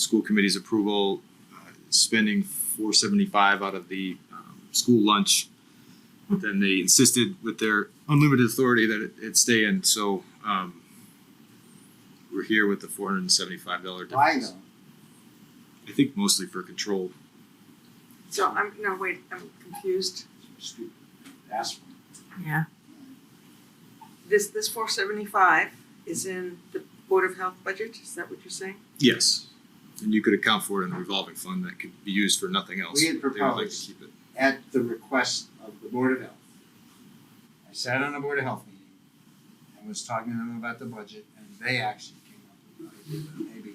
school committee's approval, uh, spending four seventy-five out of the um, school lunch. But then they insisted with their unlimited authority that it, it stay in, so, um, we're here with the four hundred and seventy-five dollar Why difference. though? I think mostly for control. So I'm, no, wait, I'm confused. Stupid. Ask them. Yeah. This, this four seventy-five is in the Board of Health budget, is that what you're saying? Yes. And you could account for it in the revolving fund that could be used for nothing else. We had They would like to proposed. keep it. at the request of the Board of Health. I sat on a Board of Health meeting and was talking to them about the budget and they actually came up with the idea that maybe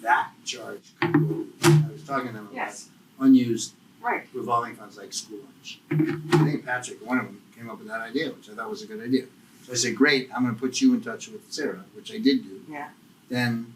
that charge could go, I was talking to them about Yes. unused Right. revolving funds like school lunch. I think Patrick, one of them, came up with that idea, which I thought was a good idea. So I said, great, I'm gonna put you in touch with Sarah, which I did do. Yeah. Then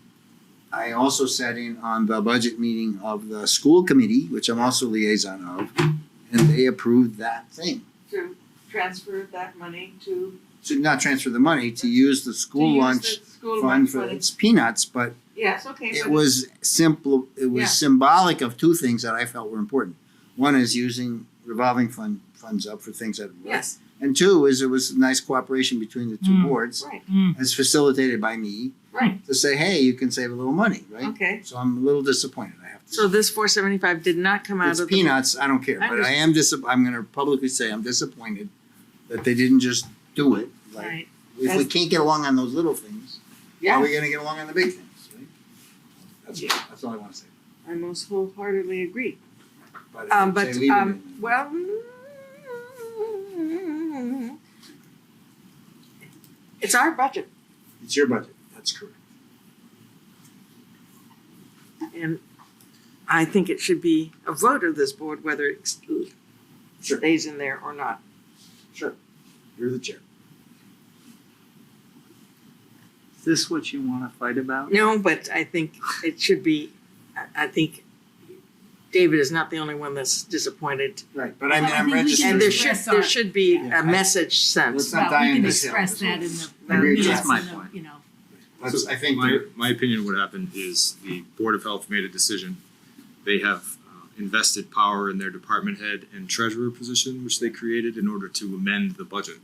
I also sat in on the budget meeting of the school committee, which I'm also liaison of, and they approved that thing. To transfer that money to. To not transfer the money, to use the to school use lunch the School fund lunch for money. its peanuts, but Yes, okay, it but was simple, it Yeah. was symbolic of two things that I felt were important. One is using revolving fund, funds up for things that work. Yes, And two is there was nice cooperation between the two Mm. boards, right, as facilitated by me, right, to say, hey, you can save a little money, right? okay. So I'm a little disappointed. I have to. So this four seventy-five did not come out it's of the. peanuts. I don't care, I but I am disap- I'm going to publicly say I'm disappointed that they didn't just do it. Like Right, if we That's- can't get along on those little things, how are yeah, we going to get along on the big things? Right? That's, that's all I want to say. I most wholeheartedly agree. But, if Um, they but, leave it um, in- well. It's our budget it's your budget. That's correct. and I think it should be a vote of this board whether it Sure. stays in there or not. Sure. You're the chair. Is this what you want to fight about? No, but I think it should be, I, I think David is not the only one that's disappointed. Right, but I mean, Well, I I'm think we registered. can And there should, Express there our- should be Yeah. a message sent. Let's not Well, die we in can this hill, express is what that it in is. the, I agree with minutes you. and the- That's you know, That's, I think My, they're- my opinion, what happened is the Board of Health made a decision. They have uh, invested power in their department head and treasurer position, which they created in order to amend the budget.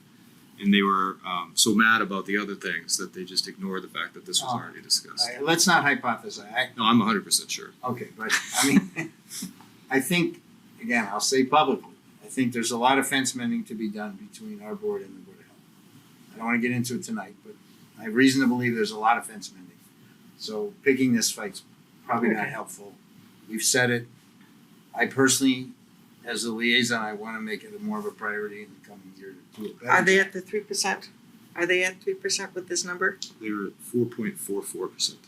And they were um, so mad about the other things that they just ignored the fact that this was Oh. already discussed. I- let's not hypothesize. I, No, I'm hundred percent sure. okay, but I mean, I think, again, I'll say publicly, I think there's a lot of fence mending to be done between our board and the Board of Health. I don't want to get into it tonight, but I have reason to believe there's a lot of fence mending. So picking this fight's probably not Okay. helpful. We've said it. I personally, as a liaison, I want to make it more of a priority in the coming year to do a better. Are they job. at the three percent? Are they at three percent with this number? They were at four point four four percent.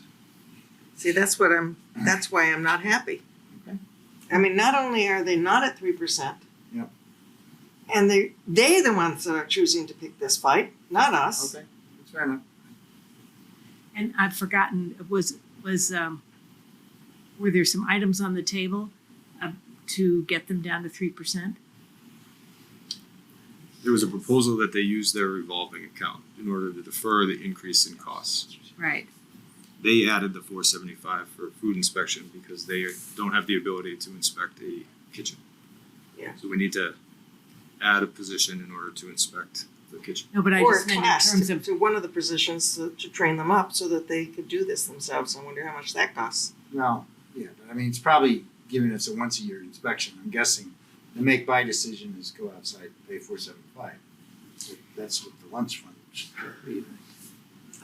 See, that's what I'm, that's why I'm not happy. Okay. I mean, not only are they not at three percent. Yep. And they, they the ones that are choosing to pick this fight, not us. Okay, that's fair enough. and I've forgotten, was, was, um, were there some items on the table uh, to get them down to three percent? There was a proposal that they use their revolving account in order to defer the increase in costs. Right. They added the four seventy-five for food inspection because they don't have the ability to inspect a kitchen. Yeah. So we need to add a position in order to inspect the kitchen. No, but I Or a just meant in class terms to, of, to one of the positions to, to train them up so that they could do this themselves. I wonder how much that costs. Well, yeah, but I mean, it's probably giving us a once a year inspection, I'm guessing. The make buy decision is go outside and pay four seventy five. That's what the lunch fund should be.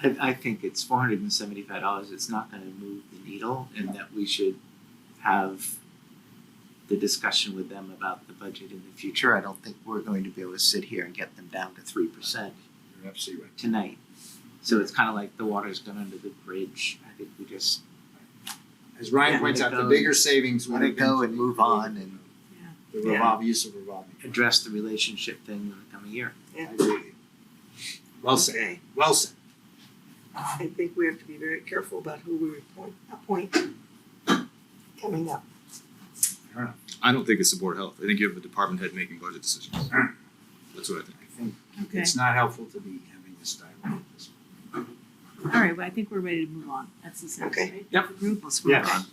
I, I think it's four hundred and seventy-five dollars, it's not gonna move the needle, and that we should have the discussion with them about the budget in the future, I don't think we're going to be able to sit here and get them down to three percent You're absolutely right. tonight. So it's kinda like the water's gone under the bridge, I think we just As Ryan Yeah. points out, the Let it go. bigger savings would let have it been. go and move on and The revolve, use of revolving. funds. address the relationship thing in the coming year. I agree with you. Well said, Okay. well said. I think we have to be very careful about who we appoint, appoint coming up. Fair enough. I don't think it's the board of health. I think you have a department head making budget decisions. That's what I think. I think okay, it's not helpful to be having this dialogue at this point. all right, well, I think we're ready to move on, that's the sense, Okay. right? Yep. Group, let's move Yes. on.